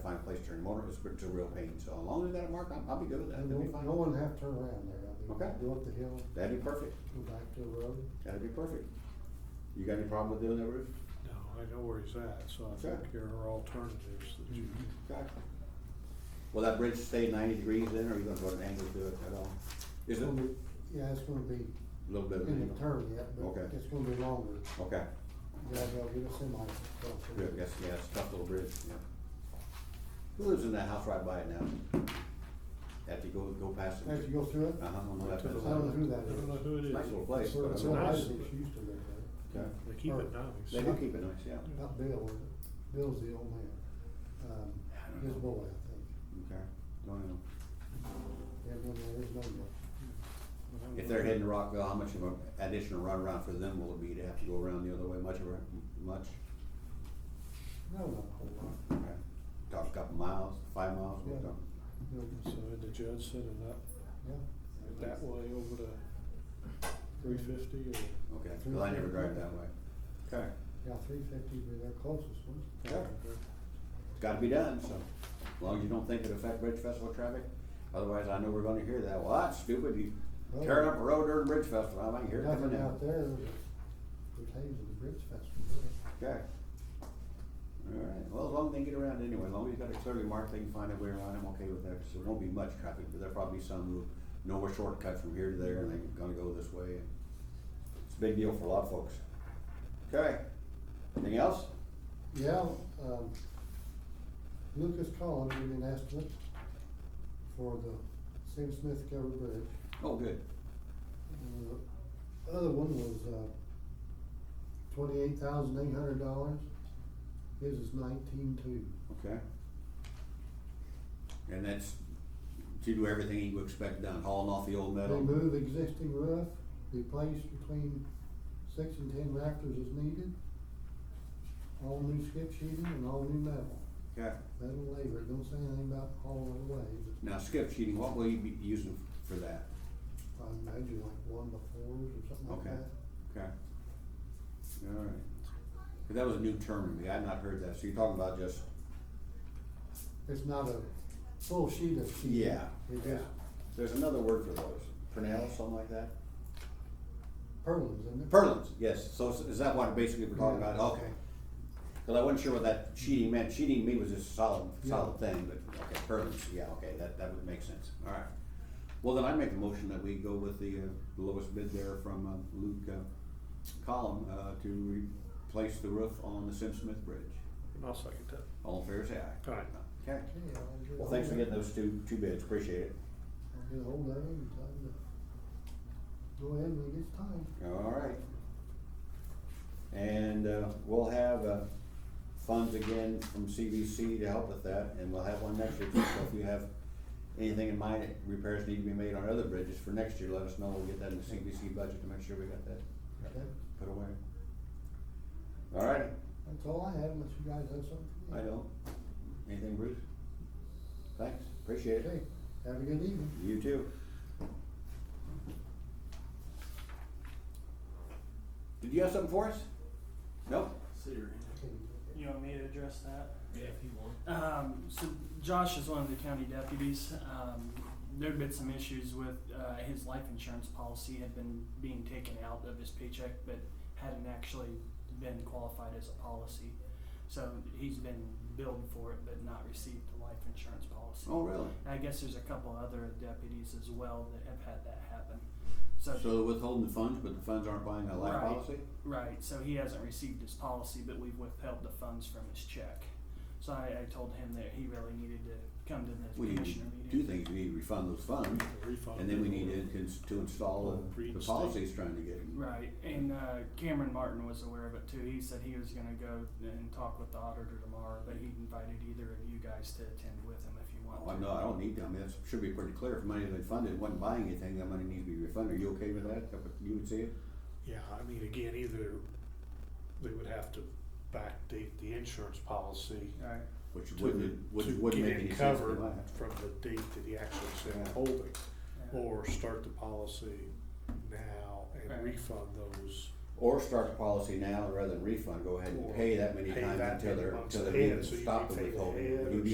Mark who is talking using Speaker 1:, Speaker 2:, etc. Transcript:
Speaker 1: turn them over, it's it's a real pain, so as long as that mark, I'll, I'll be good with that,
Speaker 2: And
Speaker 1: that'd be
Speaker 2: no, no
Speaker 1: fine.
Speaker 2: one have to turn around there, I mean,
Speaker 1: Okay.
Speaker 2: go up the hill,
Speaker 1: That'd be perfect,
Speaker 2: go back to the road.
Speaker 1: that'd be perfect. You got any problem with doing that roof?
Speaker 3: No, I know where he's at, so I
Speaker 1: Okay.
Speaker 3: think there are alternatives that you can
Speaker 1: Okay. Will that bridge stay ninety degrees then, or are you gonna go at an angle to it at all? Is
Speaker 2: It's
Speaker 1: it a
Speaker 2: gonna be- Yeah, it's gonna be
Speaker 1: little bit of an
Speaker 2: in the
Speaker 1: angle?
Speaker 2: turn yet, but
Speaker 1: Okay.
Speaker 2: it's gonna be longer,
Speaker 1: Okay,
Speaker 2: yeah, they'll get a semi. across there.
Speaker 1: good, yes, yeah, it's a tough little bridge, yeah. Who lives in that house right by it now? After you go, go past it?
Speaker 2: As you go through it,
Speaker 1: Uh-huh, on the
Speaker 3: Right
Speaker 1: left
Speaker 3: to
Speaker 1: hand
Speaker 3: the
Speaker 1: side.
Speaker 2: I don't know who that
Speaker 3: I don't know
Speaker 2: is.
Speaker 3: who it is.
Speaker 1: Nice little place, but I
Speaker 2: It's
Speaker 1: mean,
Speaker 2: one of
Speaker 3: nice.
Speaker 2: those that used to live there,
Speaker 1: Okay.
Speaker 3: They keep it
Speaker 1: They
Speaker 3: nice.
Speaker 1: do keep it nice, yeah,
Speaker 2: not Bill, was it? Bill's the old man, um, his boy, I think,
Speaker 1: okay, don't know.
Speaker 2: yeah, no, there is no one.
Speaker 1: If they're heading to Rockville, how much of an additional runaround for them will it be to have to go around the other way, much of a, much?
Speaker 2: No, not a whole lot,
Speaker 1: Okay. Talk a couple miles, five miles, what
Speaker 2: Yeah.
Speaker 1: talk?
Speaker 2: no,
Speaker 3: So the judge set it up
Speaker 2: yeah.
Speaker 3: that way over to three fifty or?
Speaker 1: Okay, well, I never drive that way. Okay.
Speaker 2: Yeah, three fifty would be their closest one.
Speaker 1: Yeah. It's gotta be done, so, as long as you don't think it affect Bridge Festival traffic, otherwise I know we're gonna hear that, well, that's stupid, you
Speaker 2: Well,
Speaker 1: tearing up a road during Bridge Festival, I might hear it coming
Speaker 2: Nothing
Speaker 1: out.
Speaker 2: out there, pertains to the Bridge Festival.
Speaker 1: Okay. Alright, well, as long as they get around anyway, as long as you got it clearly marked, they can find a way around, I'm okay with that, because there won't be much traffic, but there'll probably be some who know a shortcut from here to there, and they're gonna go this way. It's a big deal for a lot of folks. Okay, anything else?
Speaker 2: Yeah, um, Lucas Collins did an estimate for the Sam Smith covered bridge.
Speaker 1: Oh, good.
Speaker 2: And The other one was, uh, twenty-eight thousand eight hundred dollars. His is nineteen-two.
Speaker 1: Okay. And that's to do everything you would expect done, hauling off the old metal?
Speaker 2: Remove existing roof, replace between six and ten rafters as needed. All new skip sheeting and all new metal.
Speaker 1: Okay,
Speaker 2: Metal labor, It don't say anything about hauling it away, but
Speaker 1: now skip sheeting, what will you be using for that?
Speaker 2: I imagine like one to fours or something like
Speaker 1: Okay.
Speaker 2: that.
Speaker 1: Okay. All right. 'Cause that was a new term to me, I had not heard that, so you're talking about just,
Speaker 2: It's not a full sheet of sheet.
Speaker 1: yeah,
Speaker 2: It's
Speaker 1: yeah.
Speaker 2: just
Speaker 1: There's another word for those, pernel, something like that?
Speaker 2: purlins, isn't it?
Speaker 1: Purlins, yes, so is- is that what basically we're talking
Speaker 2: Yeah.
Speaker 1: about, okay. Cause I wasn't sure what that cheating meant, cheating to me was just a solid, solid thing, but, okay, purlins, yeah, okay, that, that would make sense, alright. Well, then I make a motion that we go with the, uh, the lowest bid there from, uh, Luke, uh, Collum, uh, to replace the roof on the Sim Smith Bridge.
Speaker 3: I'll second that.
Speaker 1: All in favor, say aye.
Speaker 3: Aye.
Speaker 1: Okay,
Speaker 2: Okay, I'll get
Speaker 1: well, thanks for
Speaker 2: ahold of-
Speaker 1: getting those two, two bids, appreciate it.
Speaker 2: I'll get ahold of him and tell him to go ahead when he gets time.
Speaker 1: All right. And uh, we'll have uh, funds again from CVC to help with that, and we'll have one next year. too. So if you have anything in mind, that repairs need to be made on other bridges for next year, let us know. We'll get that in the CVC budget to make sure we got that
Speaker 2: Okay,
Speaker 1: put away. All right,
Speaker 2: that's all I have, unless you guys have something.
Speaker 1: I don't. Anything, Bruce? Thanks, appreciate it.
Speaker 2: Okay, have a good evening.
Speaker 1: You too. Did you have something for us? Nope?
Speaker 4: You want me to address that?
Speaker 5: Yeah, if you want.
Speaker 4: Um, so Josh is one of the county deputies. Um, there'd been some issues with, uh, his life insurance policy had been being taken out of his paycheck, but hadn't actually been qualified as a policy. So he's been billed for it, but not received the life insurance policy.
Speaker 1: Oh, really?
Speaker 4: I guess there's a couple other deputies as well that have had that happen. So,
Speaker 1: So they're withholding the funds, but the funds aren't buying a life
Speaker 4: Right.
Speaker 1: policy?
Speaker 4: right, so he hasn't received his policy, but we've withheld the funds from his check. So I, I told him that he really needed to come to the
Speaker 1: We need to
Speaker 4: commissioner
Speaker 1: do
Speaker 4: meeting.
Speaker 1: things, we need to refund those funds,
Speaker 3: Refund
Speaker 1: and then we
Speaker 3: it
Speaker 1: need
Speaker 3: or-
Speaker 1: to, ins- to install the, the
Speaker 3: Reinstate.
Speaker 1: policies trying to get.
Speaker 4: Right, and uh, Cameron Martin was aware of it too. He said he was gonna go and talk with the auditor tomorrow, but he invited either of you guys to attend with him if you want
Speaker 1: Oh,
Speaker 4: to.
Speaker 1: no, I don't need to, I mean, that should be pretty clear, if money's been funded, wasn't buying anything, that money needs to be refunded, are you okay with that, That what you would see it?
Speaker 3: Yeah, I mean, again, either they would have to backdate the insurance policy
Speaker 4: All right,
Speaker 1: Which
Speaker 3: to,
Speaker 1: wouldn't,
Speaker 3: to
Speaker 1: which wouldn't
Speaker 3: get
Speaker 1: make
Speaker 3: it
Speaker 1: any sense to
Speaker 3: covered
Speaker 1: buy.
Speaker 3: from the date that he actually said
Speaker 1: Yeah.
Speaker 3: holding.
Speaker 4: yeah.
Speaker 3: Or start the policy now
Speaker 4: Right.
Speaker 3: and refund those.
Speaker 1: Or start the policy now, rather than refund, go ahead and
Speaker 3: Or
Speaker 1: pay that many
Speaker 3: pay
Speaker 1: times
Speaker 3: that
Speaker 1: until
Speaker 3: many
Speaker 1: they're,
Speaker 3: months
Speaker 1: until
Speaker 3: ahead,
Speaker 1: they're
Speaker 3: so you
Speaker 1: stopped
Speaker 3: can
Speaker 1: the
Speaker 3: pay
Speaker 1: withholding.
Speaker 3: ahead
Speaker 1: You'd
Speaker 3: or
Speaker 1: be